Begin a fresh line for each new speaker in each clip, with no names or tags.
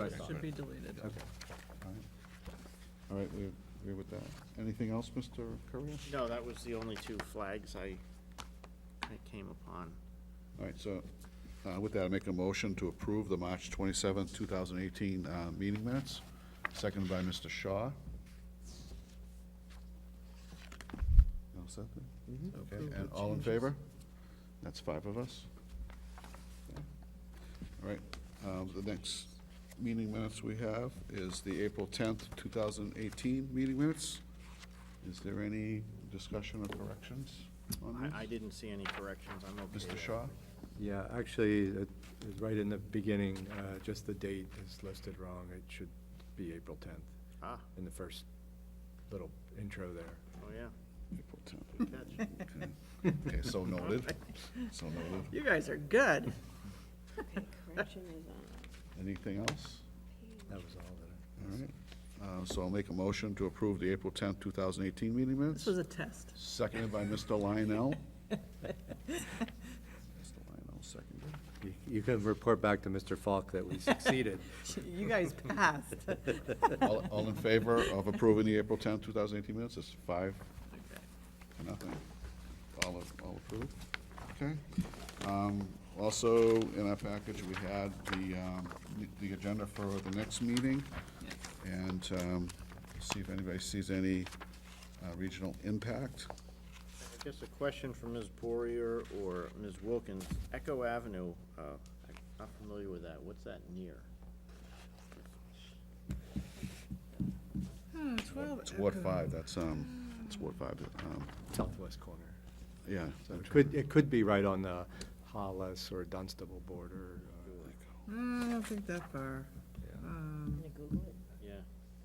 Right.
Should be deleted.
Okay. All right. All right, we agree with that. Anything else, Mr. Correa?
No, that was the only two flags I, I came upon.
All right, so uh, with that, I make a motion to approve the March 27th, 2018 uh, meeting minutes, seconded by Mr. Shaw. All set then? Okay, and all in favor? That's five of us. All right, um, the next meeting minutes we have is the April 10th, 2018 meeting minutes. Is there any discussion or corrections on this?
I, I didn't see any corrections, I'm okay.
Mr.
with-
Shaw?
Yeah, actually, it is right in the beginning, uh, just the date is listed wrong. It should be April 10th
Ah,
in the first little intro there.
oh, yeah,
April 10th.
good catch.
Okay, so noted, so noted.
You guys are good.
Correction is on
Anything else?
That was all that
All right, Uh, so I'll make a motion to approve the April 10th, 2018 meeting
This
minutes,
was a test.
seconded by Mr. Lionel. Mr. Lionel seconded.
I. You- You can report back to Mr. Falk that we succeeded.
You guys passed.
All- All in favor of approving the April 10th, 2018 minutes, it's five to nothing. All of- all approved, okay? Um, Also, in our package, we had the um, the agenda for the next meeting. and um, see if anybody sees any uh, regional impact.
I guess a question for Ms. Poirier or Ms. Wilkins, Echo Avenue, uh, I'm not familiar with that, what's that near?
It's Ward Five, that's, um, it's Ward Five, um,
Southwest corner.
yeah.
So it could, it could be right on the Hollis or Dunstable border. uh,
Mm, I don't think that far. Um,
Yeah,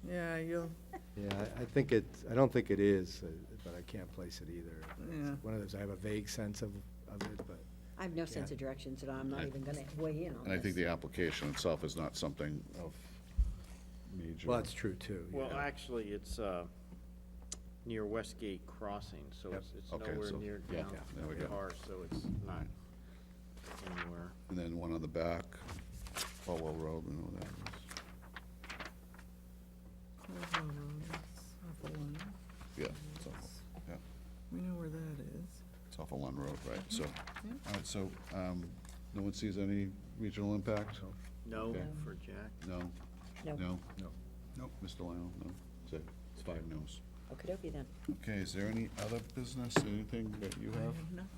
Yeah, you'll,
Yeah, I- I think it, I don't think it is, uh, but I can't place it either. It's
Yeah.
One of those, I have a vague sense of, of it, but.
I have no sense of direction, so I'm not even gonna weigh in on this.
And I think the application itself is not something of major.
Well, that's true, too. yeah.
well, actually, it's, uh, near Westgate Crossing, so it's, it's
Okay,
nowhere
so-
near
yeah,
down
yeah, there we
the
go.
car, so it's not anywhere.
And then one on the back, Falwell Road, and all that. is-
Cornwall Road, that's off of one.
Yeah, it's off, yeah,
we know where that is.
it's off of Lund Road, right, so. All right, so, um, no one sees any regional impact?
No
Okay.
for Jack?
No?
No.
No?
No.
Nope. Mr. Lionel, no? So, it's five no's.
Okey-dokey then.
Okay, is there any other business, anything that you
I
have?
have nothing.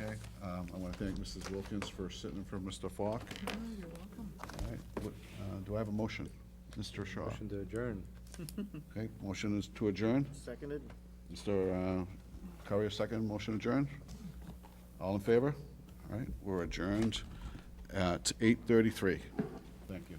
Okay, um, I want to thank Mrs. Wilkins for sitting in for Mr. Falk.
Oh, you're welcome.
All right, what- uh, do I have a motion? Mr. Shaw?
Motion to adjourn.
Okay, motion is to adjourn.
Seconded?
Mr. uh, Curry, second, motion adjourned. All in favor? All right, we're adjourned at eight thirty-three. Thank you.